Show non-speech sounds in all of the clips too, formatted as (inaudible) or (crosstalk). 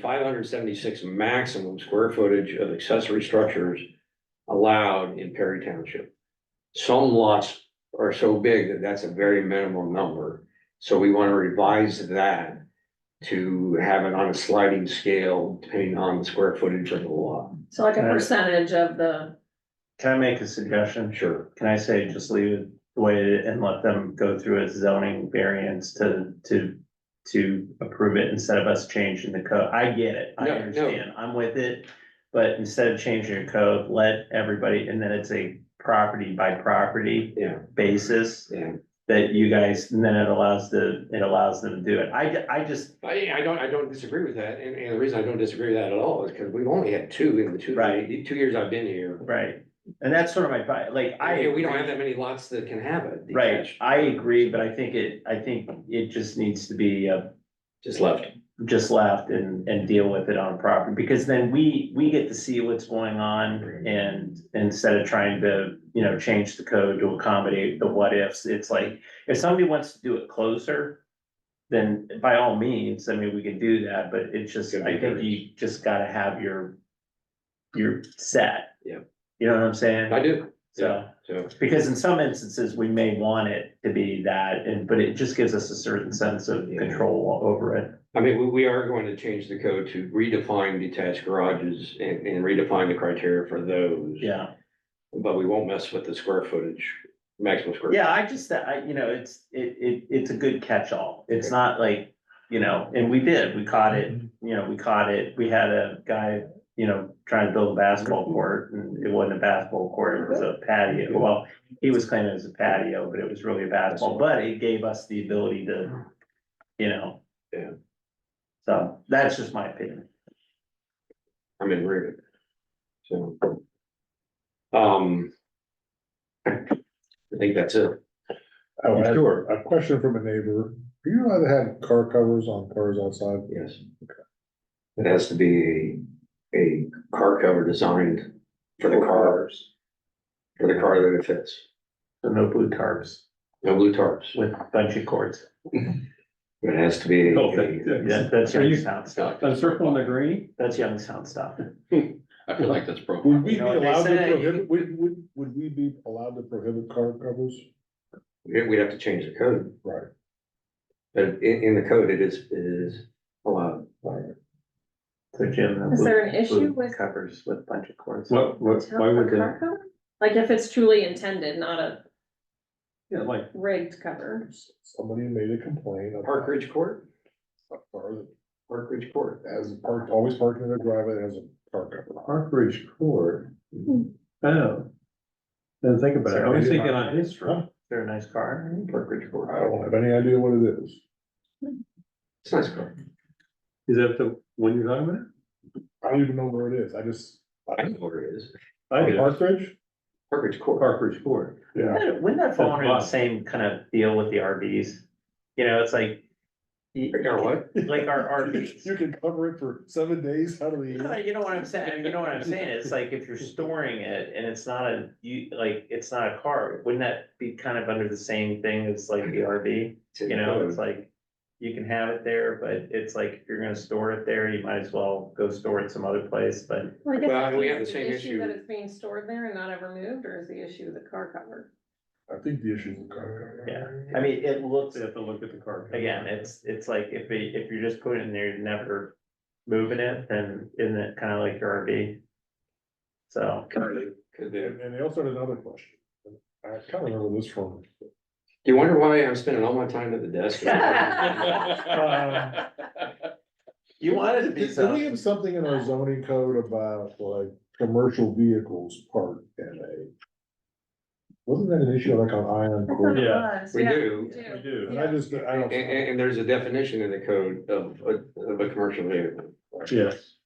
five hundred seventy-six maximum square footage of accessory structures allowed in Perry Township. Some lots are so big that that's a very minimum number, so we want to revise that to have it on a sliding scale depending on the square footage of the lot. So like a Right. percentage of the, Can I make a suggestion? Sure. Can I say just leave it the way it is and let them go through a zoning variance to, to, to approve it instead of us changing the code? I get it. I No, no. understand. I'm with it. But instead of changing your code, let everybody, and then it's a property by property Yeah, basis yeah. that you guys, and then it allows the, it allows them to do it. I, I just, I, I don't, I don't disagree with that, and, and the reason I don't disagree with that at all is because we've only had two in the two, Right. the two years I've been here. right. And that's sort of my, fi- like, I. I, we don't have that many lots that can have it. Right, detached. I agree, but I think it, I think it just needs to be uh Just left. just left and and deal with it on property, because then we we get to see what's going on and instead of trying to, you know, change the code to accommodate the what ifs, it's like, if somebody wants to do it closer, then by all means, I mean, we can do that, but it's just, I think you just gotta have your your set. Yeah. You know what I'm saying? I do, So. so. Because in some instances, we may want it to be that, and, but it just gives us a certain sense of Yeah. control over it. I mean, we, we are going to change the code to redefine detached garages and, and redefine the criteria for those. Yeah, But we won't mess with the square footage, maximum square. yeah, I just, I, you know, it's, it, it, it's a good catch-all. It's not like, you know, and we did, we caught it, you know, we caught it. We had a guy, you know, trying to build a basketball court, and it wasn't a basketball court, it was a patio. Well, he was claiming it was a patio, but it was really a basketball, but it gave us the ability to, you know. Yeah. So that's just my opinion. I'm in agreement. So. Um. I think that's it. Oh, I- Sure. A question from a neighbor, do you allowed to have car covers on cars outside? Yes. It has to be a, a car cover designed for the car, for the car that it fits. So no blue tarps. No blue tarps. with a bunch of cords. It has to be. Oh, that- a- Yeah, that's Are you- Youngstown stuff. I'm circling the green. That's Youngstown stuff. I feel like that's broken. Would we be You know what they allowed to say. prohibit, would, would, would we be allowed to prohibit car covers? we- We'd have to change the code, Right. but in, in the code, it is, it is allowed. So Jim. the Is blue- there an issue blue with- Covers with a bunch of cords. What, what, why would they, like if it's truly intended, not a yeah, like, rigged cover. Somebody made a complaint Park about Ridge Court, a car Park Ridge Court. that has parked, always parked in their driveway that has a car cover. Park Ridge Court? Oh. Didn't think about it. I was thinking on his front. They're a nice car. Park Ridge I Court. don't have any idea what it is. It's a nice car. Is that the one you're talking about? I don't even know where it is. I just. I know where it is. I did. Park Ridge? Park Ridge Court. Park Ridge Court. Yeah. Wouldn't that fall That's under the fun. same kind of deal with the RVs? You know, it's like. you- You know what? Like our (laughs) RVs. You can cover it for seven days out of the No, year. You know what I'm saying? You know what I'm saying? It's like (laughs) if you're storing it and it's not a, you, like, it's not a car, wouldn't that be kind of under the same thing as like the RV? It's in You the know, code. it's like, you can have it there, but it's like, if you're gonna store it there, you might as well go store it some other place, but. Well, and we have the same issue. That it's being stored there and not ever moved, or is the issue the car (laughs) cover? (laughs) I think the issue is the car. Yeah. I mean, it looks, They have to look at the car. again, it's, it's like, if it, if you're just putting it in there, you're never moving it, then isn't it kinda like your RV? So, Could be. And, and they also had another question. I kind of remember this from Do you wonder why I'm spending all my time at the desk? (laughs) Uh, you wanted to be Do we something, have something in our zoning code about like commercial vehicles parked in a? Wasn't that an issue like on Iron Court? Yeah. We do, We do. And I just, I and, don't. and, and there's a definition in the code of, a- of a commercial vehicle. Yes.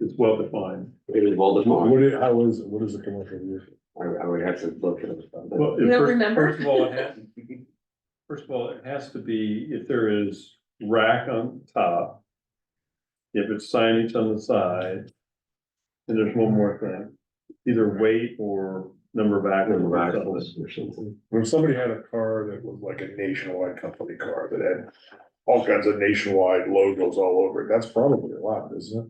It's well defined. It is well defined. What is, how is, what is a commercial vehicle? I, I would have to look at it. Well, You don't first- remember? First of all, it has, (laughs) first of all, it has to be, if there is rack on top, if it's signage on the side, and there's one more thing, either weight or number of axles. Number or of something. axles or something. When somebody had a car that was like a nationwide company car that had all kinds of nationwide logos all over it. That's probably a lot, isn't it?